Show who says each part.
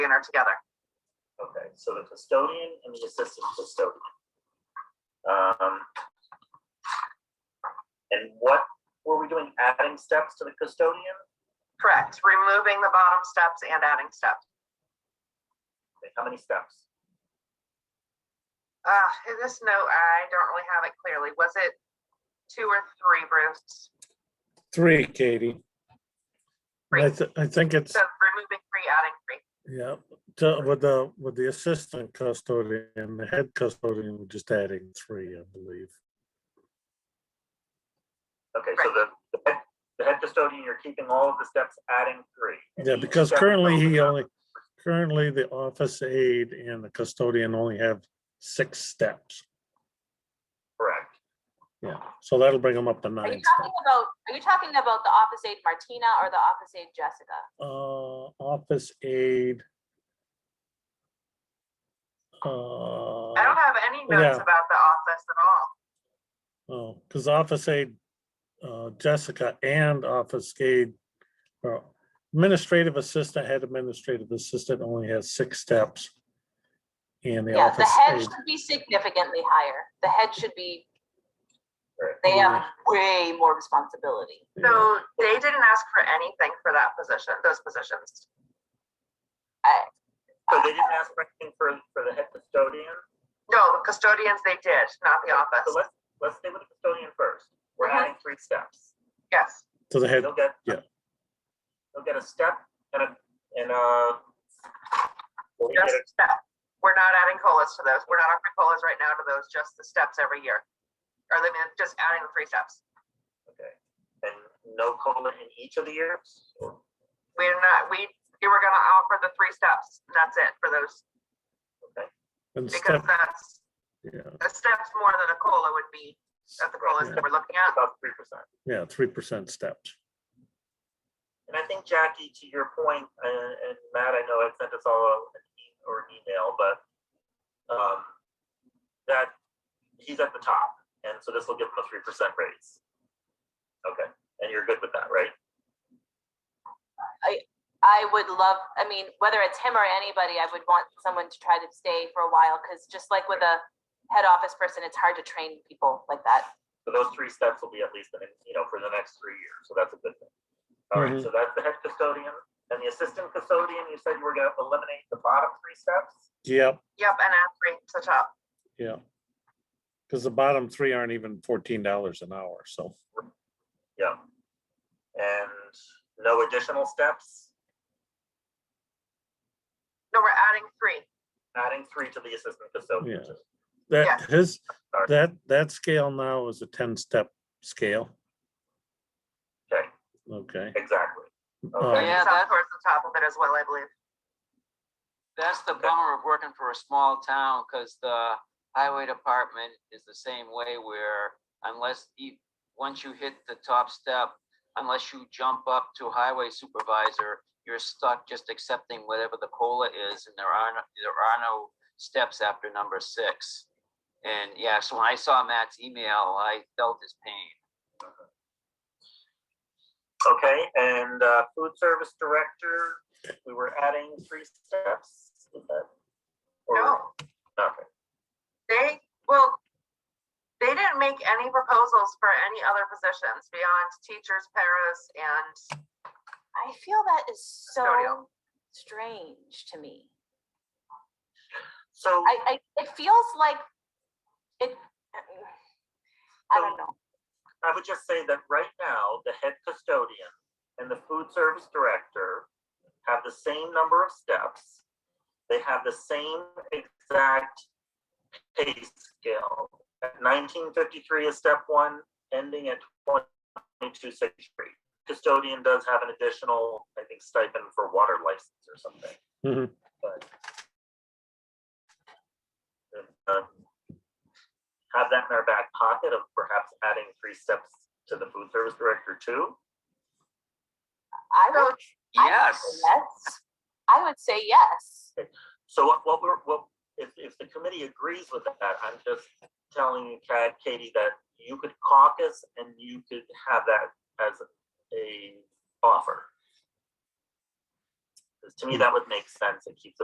Speaker 1: dinner together.
Speaker 2: Okay, so the custodian and the assistant custodian. Um. And what were we doing? Adding steps to the custodian?
Speaker 1: Correct, removing the bottom steps and adding steps.
Speaker 2: Okay, How many steps?
Speaker 1: Uh, in this note, I don't really have it clearly. Was it two or three, Bruce?
Speaker 3: Three, Katie. I,
Speaker 1: Three.
Speaker 3: th- I think it's,
Speaker 1: So removing three, adding three.
Speaker 3: yeah, to- with the, with the assistant custodian, the head custodian, we're just adding three, I believe.
Speaker 2: Okay, so the, the head, the head custodian, you're keeping all of the steps, adding three. And
Speaker 3: Yeah,
Speaker 2: each
Speaker 3: because
Speaker 2: step is
Speaker 3: currently
Speaker 2: broken
Speaker 3: he
Speaker 2: up.
Speaker 3: only, currently the office aide and the custodian only have six steps.
Speaker 2: Correct.
Speaker 3: Yeah, so that'll bring them up to
Speaker 4: Are you
Speaker 3: nine. steps.
Speaker 4: talking about, are you talking about the office aide Martina or the office aide Jessica?
Speaker 3: Uh, office aide. Uh,
Speaker 1: I don't have any notes
Speaker 3: Yeah.
Speaker 1: about the office at all.
Speaker 3: Oh, because office aide, uh, Jessica and office aide, or administrative assistant, head administrative assistant only has six steps. And the
Speaker 4: Yeah, the
Speaker 3: office
Speaker 4: head
Speaker 3: aide,
Speaker 4: should be significantly higher. The head should be,
Speaker 2: Right.
Speaker 4: they have way more responsibility.
Speaker 1: So
Speaker 3: yeah,
Speaker 1: they didn't ask for anything for that position, those positions.
Speaker 2: So they didn't ask for anything for, for the head custodian?
Speaker 1: No, the custodians, they did, not the
Speaker 2: So
Speaker 1: office.
Speaker 2: let's, let's stay with the custodian first. We're
Speaker 1: Okay.
Speaker 2: adding three steps.
Speaker 1: Yes,
Speaker 3: to the head,
Speaker 2: They'll get.
Speaker 3: yeah.
Speaker 2: They'll get a step and a, and a. they'll get
Speaker 1: just
Speaker 2: a-
Speaker 1: step. We're not adding colas to those. We're not offering colas right now to those, just the steps every year. Or I mean, just adding the three steps.
Speaker 2: Okay, and no COLA in each of the years? Or-
Speaker 1: We're not, we, we were gonna offer the three steps, and that's it for those,
Speaker 3: and
Speaker 1: because
Speaker 3: step,
Speaker 1: that's,
Speaker 3: yeah,
Speaker 1: a step's more than a cola would be, that's the colas that we're looking at.
Speaker 2: About three percent.
Speaker 3: yeah, three percent steps.
Speaker 2: And I think Jackie, to your point, and, and Matt, I know I sent us all a- an e- or an email, but um, that he's at the top, and so this will give him a three percent raise. Okay, and you're good with that, right?
Speaker 4: I would love, I mean, whether it's him or anybody, I would want someone to try to stay for a while, because just like with a head office person, it's hard to train people like that.
Speaker 2: So those three steps will be at least, in you know, for the next three years, so that's a good thing. All right,
Speaker 3: Mhm.
Speaker 2: so that's the head custodian, and the assistant custodian, you said you were gonna eliminate the bottom three steps?
Speaker 3: Yep,
Speaker 1: Yep, and add three to the top.
Speaker 3: yeah. Because the bottom three aren't even fourteen dollars an hour, so,
Speaker 2: Yeah. And no additional steps,
Speaker 1: No, we're adding three.
Speaker 2: adding three to the assistant custodian.
Speaker 3: Yeah.
Speaker 1: Yeah.
Speaker 3: that, his,
Speaker 2: Sorry.
Speaker 3: that, that scale now is a ten-step scale,
Speaker 2: Okay,
Speaker 3: okay?
Speaker 2: exactly.
Speaker 3: Um,
Speaker 2: Okay,
Speaker 5: Yeah,
Speaker 1: Some
Speaker 5: that-
Speaker 1: towards the top of it as well, I believe.
Speaker 5: That's the bummer of working for a small town, because the highway department is the same way where unless you, once you hit the top step, unless you jump up to highway supervisor, you're stuck just accepting whatever the COLA is, and there are, no- there are no steps after number six. And yeah, so when I saw Matt's email, I felt his pain.
Speaker 2: Okay, and uh, food service director, we were adding three steps. is that- or-
Speaker 1: No.
Speaker 2: Okay,
Speaker 1: They, well, they didn't make any proposals for any other positions beyond teachers, paras, and
Speaker 4: I feel that is
Speaker 1: Custodial.
Speaker 4: so strange to me.
Speaker 2: so,
Speaker 4: I, I, it feels like it, I don't know.
Speaker 2: I would just say that right now, the head custodian and the food service director have the same number of steps. They have the same exact pay scale. At nineteen fifty-three is step one, ending at twenty-two sixty-three. Custodian does have an additional, I think, stipend for water license or something.
Speaker 3: Mhm.
Speaker 2: But uh, have that in our back pocket of perhaps adding three steps to the food service director too.
Speaker 4: I would, I would say yes. I would say yes.
Speaker 2: So what, what we're, what, if, if the committee agrees with that, I'm just telling you, Kat, Katie, that you could caucus and you could have that as a offer. to me, that would make sense. It keeps it